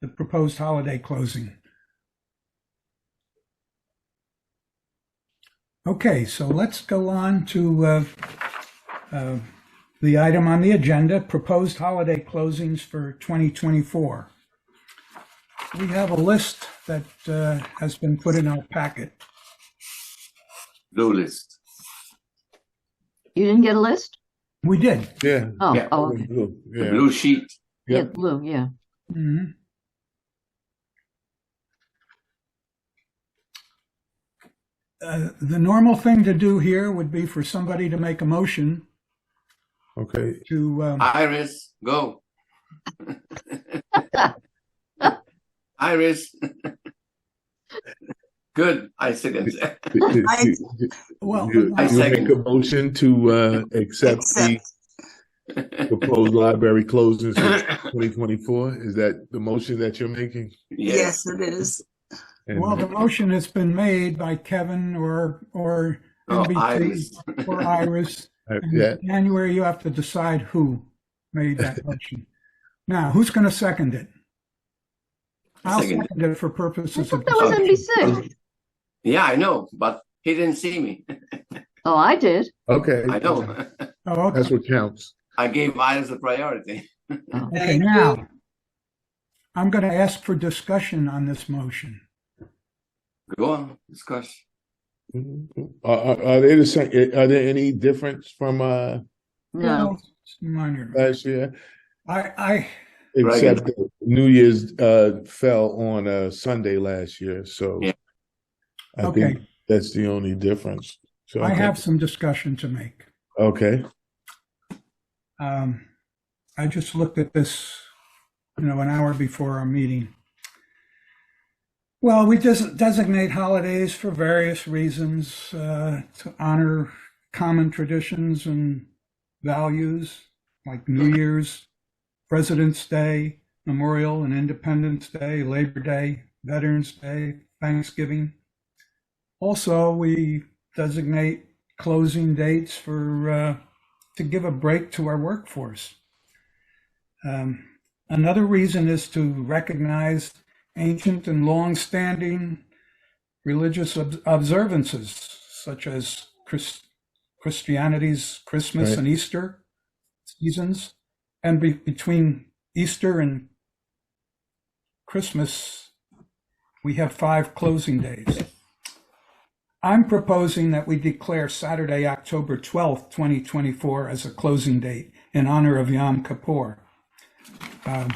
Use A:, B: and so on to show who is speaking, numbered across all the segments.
A: the proposed holiday closing. Okay, so let's go on to uh, uh, the item on the agenda, proposed holiday closings for 2024. We have a list that uh, has been put in our packet.
B: No list.
C: You didn't get a list?
A: We did.
D: Yeah.
C: Oh,
B: Yeah.
C: oh, okay.
B: The
D: Yeah.
B: blue sheet.
D: Yeah.
C: yeah, blue, yeah.
A: Mhm. Uh, The normal thing to do here would be for somebody to make a motion
D: Okay.
A: to, um,
B: Iris, go. Iris. Good. I second that.
D: You-
E: I-
D: you-
A: well,
D: You
B: I
D: you
B: second.
D: make a motion to uh, accept the
E: Accept.
D: proposed library closings for 2024? Is that the motion that you're making?
B: yes.
E: Yes, it is.
D: And-
A: well, the motion has been made by Kevin or, or
B: Oh,
A: NBT
B: Iris.
A: or Iris.
D: uh,
A: And
D: Yeah,
A: in January, you have to decide who made that motion. Now, who's going to second it? I'll
B: Second it.
A: second it for
C: I
A: purposes of.
C: thought that was
B: Okay.
C: NBC.
B: Yeah, I know, but he didn't see me.
C: Oh, I did.
D: okay.
B: I know.
A: Oh, okay.
D: That's what counts.
B: I gave Iris the priority.
A: Okay,
E: Thank you.
A: now, I'm going to ask for discussion on this motion.
B: Go on, discuss.
D: Mm-hmm. Are, are are they the same, eh, are there any difference from uh,
C: No,
A: It's Minor.
D: last year?
A: I, I,
B: Right.
D: Except that New Year's uh, fell on a Sunday last year, so.
B: Yeah.
D: I
A: okay,
D: think that's the only difference. So
A: I
D: think-
A: have some discussion to make.
D: Okay,
A: Um, I just looked at this, you know, an hour before our meeting. Well, we just designate holidays for various reasons, uh, to honor common traditions and values like New Year's, President's Day, Memorial and Independence Day, Labor Day, Veterans Day, Thanksgiving. Also, we designate closing dates for, uh, to give a break to our workforce. Um, another reason is to recognize ancient and long-standing religious ob- observances, such as Chris- Christianity's Christmas
D: Right.
A: and Easter seasons, and be- between Easter and Christmas, we have five closing days. I'm proposing that we declare Saturday, October 12th, 2024 as a closing date in honor of Yom Kippur. Um,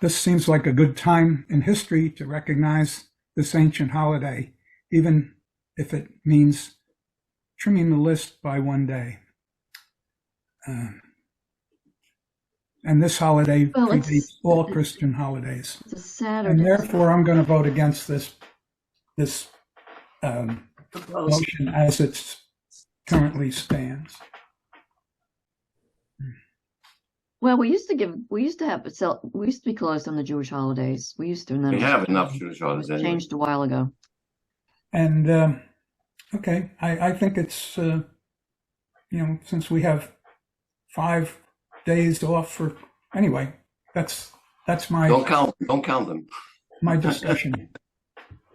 A: This seems like a good time in history to recognize this ancient holiday, even if it means trimming the list by one day. Um, And this holiday
C: Well, it's-
A: predates all Christian holidays.
C: it's a
A: And
C: Saturday.
A: therefore, I'm going to vote against this, this um,
E: Proposed.
A: motion as it currently stands.
C: Well, we used to give, we used to have, sell- we used to be closed on the Jewish holidays. We used to, and then.
B: We
D: Um,
C: it
B: have
C: was-
B: enough Jewish holidays
C: it
B: anyway.
C: Changed a while ago.
A: And, um, okay, I, I think it's, uh, you know, since we have five days off for, anyway, that's, that's
B: Don't
A: my,
B: count. Don't count them.
A: my discussion.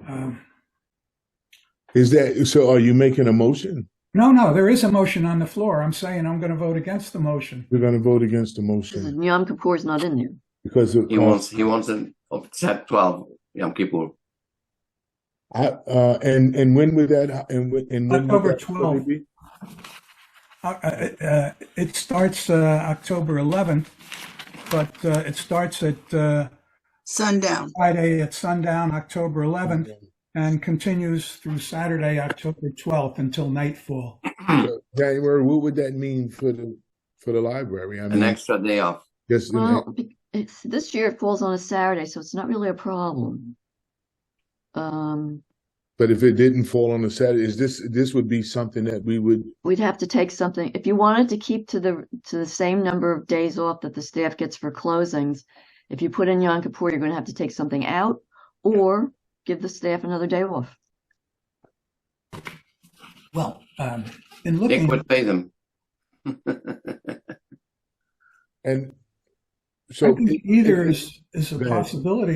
A: Um,
D: is that so? Are you making a motion?
A: No, no, there is a motion on the floor. I'm saying I'm going to vote against the motion.
D: We're going to vote against the
C: This is,
D: motion
C: Yom Kippur's not in there.
D: because of,
B: He wants. He wants them of set twelve Yom Kippur.
D: I, uh, and and when would that and when and when would
A: October
D: that
A: 12.
D: be?
A: Uh, uh, uh, It starts uh, October 11th, but uh, it starts at uh,
E: Sundown.
A: Friday at sundown, October 11th, and continues through Saturday, October 12th until nightfall.
D: January. What would that mean for the for the library? I
B: An
D: mean,
B: extra day off.
D: just the
C: Well,
D: next-
C: be- it's, this year it falls on a Saturday, so it's not really a problem. Um,
D: but if it didn't fall on a Saturday, is this this would be something that we would?
C: we'd have to take something, if you wanted to keep to the, to the same number of days off that the staff gets for closings, if you put in Yom Kippur, you're gonna have to take something out or give the staff another day off.
A: Well, um, in
B: Nick
A: looking,
B: would pay them.
D: And
A: I
D: so
A: think either is, is a
D: Go ahead.
A: possibility.